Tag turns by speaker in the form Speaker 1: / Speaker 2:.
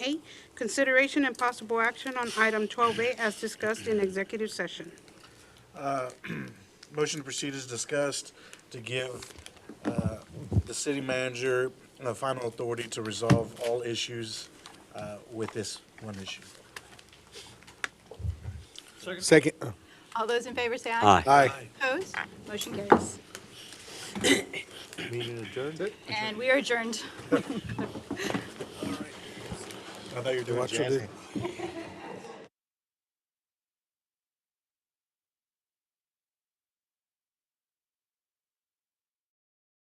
Speaker 1: A, consideration and possible action on item 12A as discussed in executive session.
Speaker 2: Motion to proceed is discussed to give uh, the city manager the final authority to resolve all issues uh, with this one issue.
Speaker 3: Second.
Speaker 4: All those in favor say aye.
Speaker 5: Aye.
Speaker 3: Aye.
Speaker 4: Opposed? Motion carries.
Speaker 5: Meeting adjourned?
Speaker 4: And we are adjourned.
Speaker 2: I thought you were doing
Speaker 3: Watch your
Speaker 2: jazz hands.